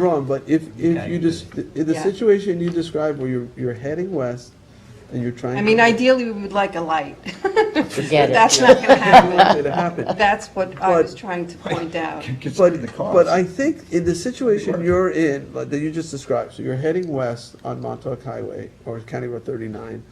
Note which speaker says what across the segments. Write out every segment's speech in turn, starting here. Speaker 1: wrong, but if,
Speaker 2: Yeah,
Speaker 1: if you
Speaker 2: you
Speaker 1: just, in the
Speaker 3: Yeah.
Speaker 1: situation you described where you're, you're heading west and you're trying.
Speaker 3: I mean,
Speaker 1: to-
Speaker 3: ideally, we would like a light.
Speaker 4: Get it.
Speaker 3: That's not going to
Speaker 1: It
Speaker 3: happen.
Speaker 1: happened.
Speaker 3: That's what I was
Speaker 1: But-
Speaker 3: trying to point out.
Speaker 2: Considering the
Speaker 1: But,
Speaker 2: cost.
Speaker 1: but I think in the situation you're in, like, that you just described, so you're heading west on Montauk Highway or County Road thirty-nine,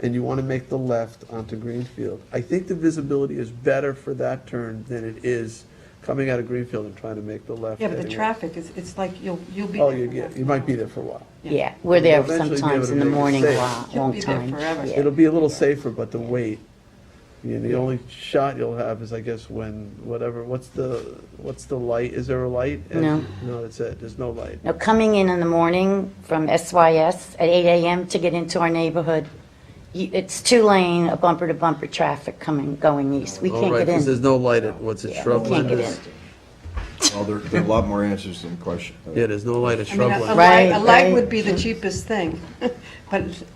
Speaker 1: and you wanna make the left onto Greenfield, I think the visibility is better for that turn than it is coming out of Greenfield and trying to make the left.
Speaker 3: Yeah, but the
Speaker 1: heading west.
Speaker 3: traffic is, it's like, you'll, you'll be.
Speaker 1: Oh,
Speaker 3: there
Speaker 1: you
Speaker 3: for
Speaker 1: get,
Speaker 3: half
Speaker 1: you
Speaker 3: an
Speaker 1: might be
Speaker 3: hour.
Speaker 1: there for a while.
Speaker 4: Yeah, we're there
Speaker 1: Eventually be able
Speaker 4: sometimes
Speaker 1: to
Speaker 4: in the
Speaker 1: make a
Speaker 4: morning a
Speaker 1: save.
Speaker 4: lot,
Speaker 3: You'll
Speaker 4: long
Speaker 3: be there
Speaker 4: time.
Speaker 3: forever.
Speaker 4: Yeah.
Speaker 1: It'll be a little safer, but the wait, you know, the only shot you'll have is, I guess, when, whatever, what's the, what's the light, is there a light? And-
Speaker 4: No.
Speaker 1: No, that's it, there's no light.
Speaker 4: Now, coming in in the morning from SYS at 8 AM to get into our neighborhood, y- it's two-lane, a bumper-to-bumper traffic coming, going east. We
Speaker 1: All
Speaker 4: can't
Speaker 1: Oh, right,
Speaker 4: get
Speaker 1: 'cause there's
Speaker 4: in.
Speaker 1: no light at, what's it,
Speaker 4: Yeah, We
Speaker 1: shrubland?
Speaker 4: can't get in.
Speaker 2: Well, there, there are a lot more answers than question.
Speaker 1: Yeah, there's no light at
Speaker 3: I mean, a- a
Speaker 1: shrubland.
Speaker 3: light,
Speaker 4: Right,
Speaker 3: a light
Speaker 4: right.
Speaker 3: would be the cheapest thing, but.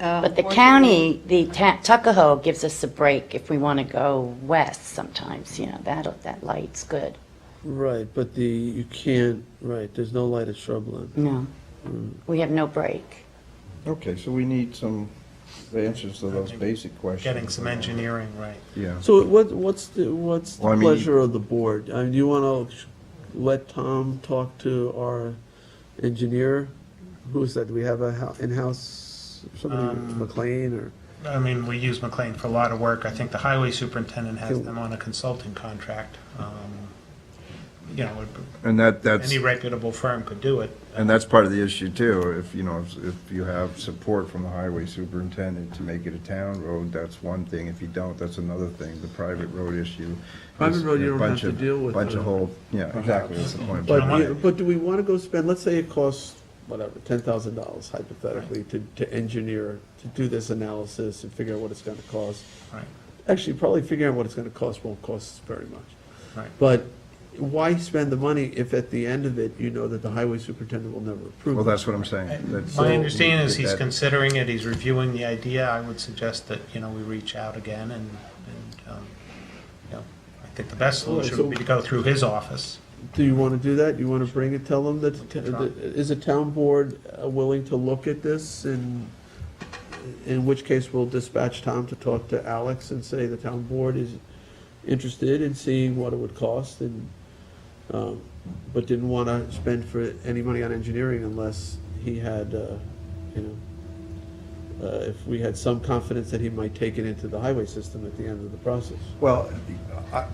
Speaker 3: uh,
Speaker 4: But the county, the ta- Tuckahoe gives us a break if we want to go west sometimes, you know, that, that light's good.
Speaker 1: Right, but the, you can't, right, there's no light at shrubland.
Speaker 4: No,
Speaker 1: Mm.
Speaker 4: we have no break.
Speaker 2: Okay, so we need some answers to those basic questions.
Speaker 5: getting some engineering right.
Speaker 2: Yeah.
Speaker 1: So what, what's the, what's
Speaker 2: Well, I
Speaker 1: the
Speaker 2: mean-
Speaker 1: pleasure of the board? I mean, do you wanna let Tom talk to our engineer? Who is that, do we have a hou- in-house, somebody,
Speaker 5: Um,
Speaker 1: McLean or?
Speaker 5: I mean, we use McLean for a lot of work. I think the highway superintendent has
Speaker 1: Cool.
Speaker 5: them on a consulting contract. Um, You know, it-
Speaker 2: And that, that's,
Speaker 5: any reputable firm could do it.
Speaker 2: and that's part of the issue too. If, you know, if- if you have support from the highway superintendent to make it a town road, that's one thing. If you don't, that's another thing. The private road issue.
Speaker 1: Private
Speaker 2: is
Speaker 1: road you
Speaker 2: a
Speaker 1: don't
Speaker 2: bunch
Speaker 1: have to
Speaker 2: of-
Speaker 1: deal with
Speaker 2: Bunch
Speaker 1: it.
Speaker 2: of whole, yeah, exactly, that's the point.
Speaker 1: But,
Speaker 5: Right.
Speaker 1: you- but do we want to go spend, let's say it costs, whatever, ten thousand dollars hypothetically to, to engineer, to do this analysis and figure out what it's gonna cost.
Speaker 5: Right,
Speaker 1: Actually, probably figuring out what it's gonna cost won't cost very much.
Speaker 5: right.
Speaker 1: But why spend the money if at the end of it, you know that the highway superintendent will never approve?
Speaker 2: Well,
Speaker 1: it?
Speaker 2: that's what I'm saying. That's-
Speaker 5: My understanding is he's
Speaker 2: That-
Speaker 5: considering it, he's reviewing the idea. I would suggest that, you know, we reach out again and, and, um, you know, I think the best
Speaker 1: All right,
Speaker 5: solution would be
Speaker 1: so-
Speaker 5: to go through his office.
Speaker 1: Do you want to do that? You want to bring it, tell them that, the t- that- is the town board uh, willing to look at this? And in which case, we'll dispatch Tom to talk to Alex and say the town board is interested in seeing what it would cost and, um, but didn't want to spend for any money on engineering unless he had, uh, you know, uh, if we had some confidence that he might take it into the highway system at the end of the process.
Speaker 2: Well, I-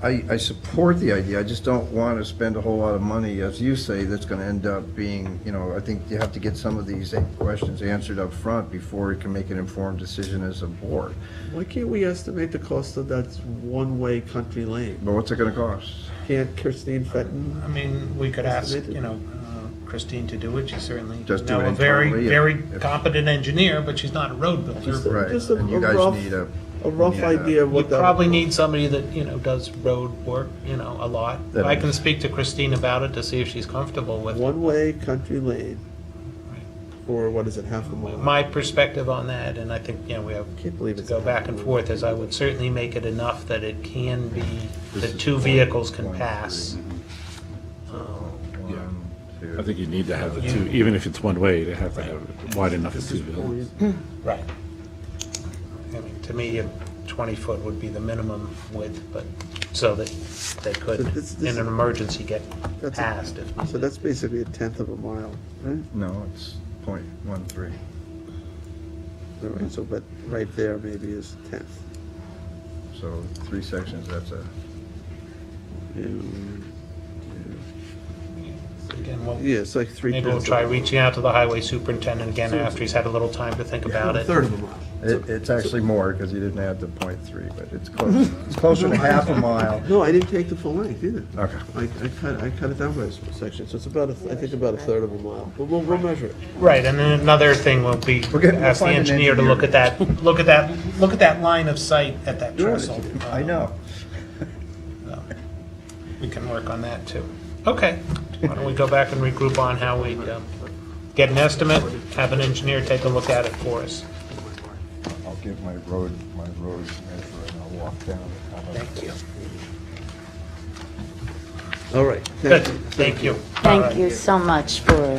Speaker 2: I, I support the idea, I just don't want to spend a whole lot of money, as you say, that's going to end up being, you know, I think you have to get some of these questions answered up front before you can make an informed decision as a board.
Speaker 1: Why can't we estimate the cost of that one-way country lane?
Speaker 2: But what's it going to cost?
Speaker 1: Can't Christine Fenton?
Speaker 5: I mean, we could ask, you know, uh, Christine to do it, she's certainly, you
Speaker 2: Just do
Speaker 5: know,
Speaker 2: it
Speaker 5: a very,
Speaker 2: internally if-
Speaker 5: very
Speaker 2: if-
Speaker 5: competent engineer, but she's not a road builder.
Speaker 2: Right,
Speaker 1: Just a-
Speaker 2: and you
Speaker 1: a
Speaker 2: guys
Speaker 1: rough-
Speaker 2: need a,
Speaker 1: A rough
Speaker 2: Yeah.
Speaker 1: idea of
Speaker 5: You
Speaker 1: what that.
Speaker 5: probably need somebody that, you know, does road work, you know, a lot.
Speaker 2: That
Speaker 5: I
Speaker 2: is-
Speaker 5: can speak to Christine about it to see if she's comfortable with it.
Speaker 1: One-way country lane, or what is it, half a mile?
Speaker 5: My perspective on that, and I think, you know, we have
Speaker 1: Can't believe
Speaker 5: to
Speaker 1: it's
Speaker 5: go
Speaker 1: a-
Speaker 5: back and forth, is I would certainly make it enough that it can be, that two vehicles can pass.
Speaker 2: yeah,
Speaker 6: I think you need to have the two, even if it's one way, they have to have it wide enough for two vehicles.
Speaker 5: Right. I mean, to me, a 20-foot would be the minimum width, but, so that they could,
Speaker 1: So this- this-
Speaker 5: in an emergency, get
Speaker 1: That's a-
Speaker 5: passed if
Speaker 1: So
Speaker 5: needed.
Speaker 1: that's basically a tenth of a mile, right?
Speaker 2: no, it's point one three.
Speaker 1: All right, so, but right there maybe is a tenth.
Speaker 2: so three sections, that's a,
Speaker 1: And,
Speaker 5: Again, we'll-
Speaker 1: Yeah, it's like three
Speaker 5: Maybe we'll
Speaker 1: tenths.
Speaker 5: try reaching out to the highway superintendent again after he's had a little time to think about
Speaker 1: A
Speaker 5: it.
Speaker 1: third of a mile.
Speaker 2: it- it's actually more, because you didn't add the point three, but it's close, it's closer to half a mile.
Speaker 1: No, I didn't take the full length either.
Speaker 2: Okay.
Speaker 1: I, I cut, I cut it down by a small section, so it's about, a th- I think about a third of a mile, but we'll, we'll measure it.
Speaker 5: Right, and then another thing will be,
Speaker 2: We're getting- we'll
Speaker 5: ask the
Speaker 2: find an
Speaker 5: engineer to look at that, look at that, look at that line of sight at that
Speaker 1: You're an
Speaker 5: trestle.
Speaker 6: Uh,
Speaker 2: I know.
Speaker 5: We can work on that, too. Okay, why don't we go back and regroup on how we um, get an estimate, have an engineer take a look at it for us.
Speaker 2: I'll give my road, my road measure and I'll walk down. Thank you.
Speaker 1: All right.
Speaker 5: Good,
Speaker 1: Thank you.
Speaker 5: thank you. All right.
Speaker 4: Thank you so much for